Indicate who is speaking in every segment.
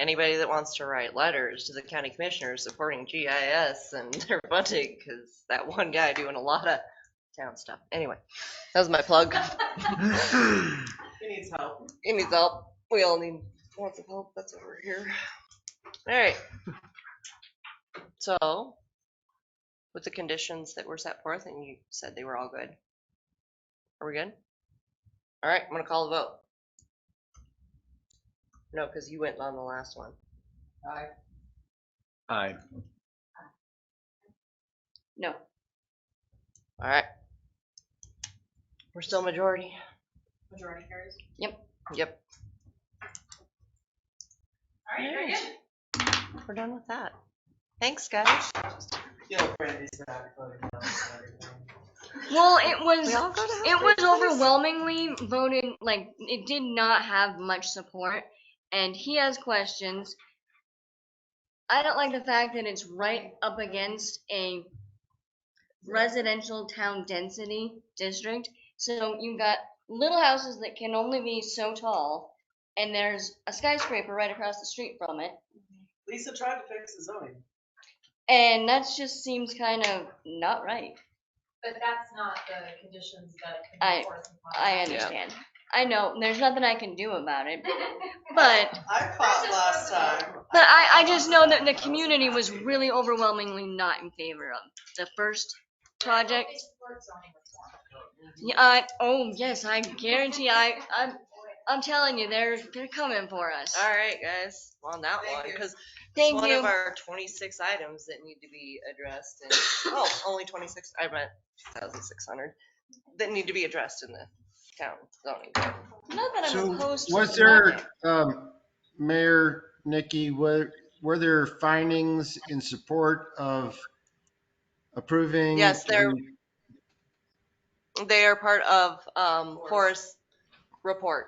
Speaker 1: anybody that wants to write letters to the county commissioners supporting GIS and their funding, because that one guy doing a lot of town stuff. Anyway, that was my plug.
Speaker 2: He needs help.
Speaker 1: He needs help. We all need lots of help. That's what we're here. All right. So, with the conditions that were set forth, and you said they were all good. Are we good? All right, I'm gonna call the vote. No, because you went on the last one.
Speaker 2: I
Speaker 3: Aye.
Speaker 4: No.
Speaker 1: All right. We're still majority.
Speaker 2: Majority carries.
Speaker 1: Yep,
Speaker 2: All right, very good.
Speaker 1: we're done with that. Thanks, guys.
Speaker 2: Feel Brandy's not voting no on everything.
Speaker 4: Well, it was
Speaker 1: We all go to
Speaker 4: it was
Speaker 1: Hufford Place.
Speaker 4: overwhelmingly voted like it did not have much support, and he has questions. I don't like the fact that it's right up against a residential town density district. So you got little houses that can only be so tall, and there's a skyscraper right across the street from it,
Speaker 2: Lisa tried to fix the zoning.
Speaker 4: and that just seems kind of not right.
Speaker 5: But that's not the conditions that can
Speaker 4: I-
Speaker 5: be forced upon.
Speaker 4: I
Speaker 5: us.
Speaker 4: understand. I know there's nothing I can do about it, but
Speaker 2: I fought last time.
Speaker 4: but I, I just know that the community was really overwhelmingly not in favor of the first project.
Speaker 5: It's for zoning reform.
Speaker 4: Yeah, I, oh yes, I guarantee I I'm
Speaker 5: Um,
Speaker 4: I'm telling you they're they're coming for us.
Speaker 1: All right, guys, on that
Speaker 2: Thank
Speaker 1: one,
Speaker 2: you.
Speaker 1: because it's
Speaker 4: Thank
Speaker 1: one of
Speaker 4: you.
Speaker 1: our twenty-six items that need to be addressed and, oh, only twenty-six, I meant thousand six hundred, that need to be addressed in the town zoning. code.
Speaker 4: Not that I'm
Speaker 3: So
Speaker 4: opposed to
Speaker 3: was
Speaker 4: the
Speaker 3: there,
Speaker 4: project.
Speaker 3: um, Mayor Nikki, were, were there findings in support of approving?
Speaker 1: Yes, there-
Speaker 3: the-
Speaker 1: They are part of, um,
Speaker 2: Forest.
Speaker 1: Forest report.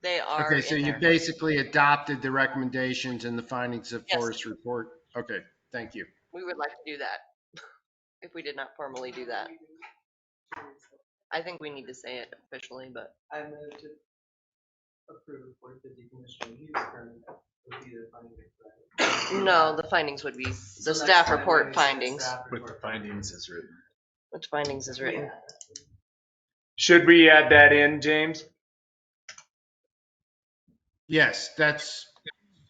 Speaker 1: They are
Speaker 3: Okay, so
Speaker 1: in
Speaker 3: you
Speaker 1: there.
Speaker 3: basically adopted the recommendations and the findings of
Speaker 1: Yes.
Speaker 3: Forest report? Okay, thank you.
Speaker 1: We would like to do that, if we did not formally do that. I think we need to say it officially, but
Speaker 2: I moved to approve for the decommissioning use permit would be the funding. requirement.
Speaker 1: no, the findings would be the
Speaker 2: So next
Speaker 1: staff
Speaker 2: time we
Speaker 1: report
Speaker 2: use the
Speaker 1: findings.
Speaker 2: staff report.
Speaker 3: findings is written.
Speaker 1: Which findings is written?
Speaker 2: Yeah.
Speaker 6: Should we add that in, James?
Speaker 3: Yes, that's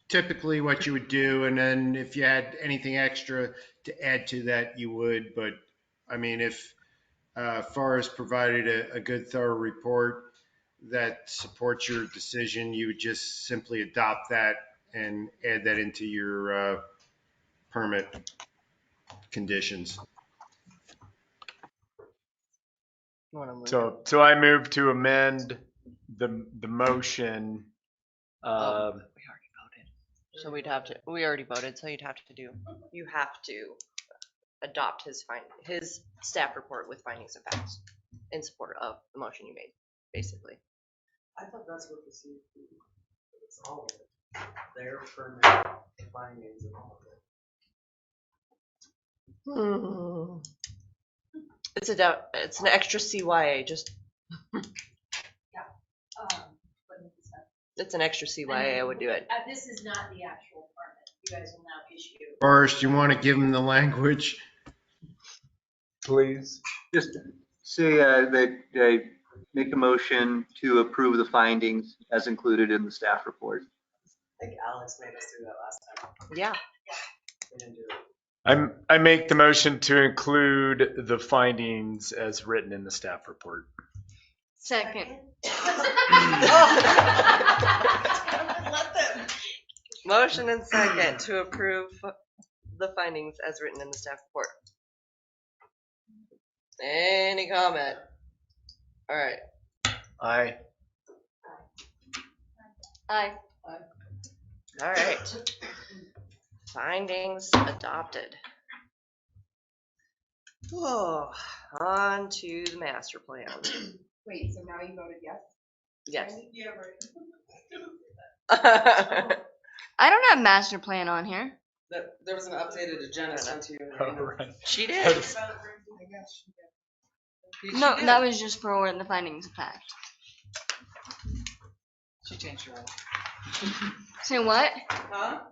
Speaker 3: typically what you would do. And then if you had anything extra to add to that, you would. But I mean, if uh, Forrest provided a, a good thorough report that supports your decision, you would just simply adopt that and add that into your uh, permit conditions.
Speaker 1: You wanna move it?
Speaker 6: So, so I move to amend the, the motion.
Speaker 1: Oh,
Speaker 6: um,
Speaker 1: We already voted. So we'd have to, we already voted, so you'd have to do, you have to adopt his find, his staff report with findings and facts in support of the motion you made, basically.
Speaker 2: I thought that's what the CUP, it's all of it, their permit, the findings and all of it.
Speaker 1: It's a, dou- it's an extra CYA, just,
Speaker 5: Um, but it's not-
Speaker 1: it's an extra CYA, I would do it.
Speaker 5: Uh, This is not the actual permit. You guys will now issue.
Speaker 3: Forrest, you want to give him the language?
Speaker 7: Please. Just say uh, that I make a motion to approve the findings as included in the staff report.
Speaker 2: I think Alex made us do that last time.
Speaker 1: Yeah,
Speaker 2: We didn't do it.
Speaker 6: I'm, I make the motion to include the findings as written in the staff report.
Speaker 4: Second.
Speaker 2: Let them.
Speaker 1: motion and second to approve the findings as written in the staff report. Any comment? All right,
Speaker 6: Aye.
Speaker 4: I
Speaker 1: All right. Findings adopted. Oh, on to the master plan.
Speaker 5: Wait, so now you voted yes?
Speaker 1: Yes.
Speaker 2: Yeah, right.
Speaker 1: I
Speaker 4: I don't have master plan on here.
Speaker 2: There, there was an updated agenda sent to you. in the
Speaker 6: All
Speaker 2: email.
Speaker 6: right.
Speaker 1: She did. She- she
Speaker 4: No,
Speaker 1: did.
Speaker 4: that was just for the findings of fact.
Speaker 2: She changed her.
Speaker 8: Say what?
Speaker 4: Huh?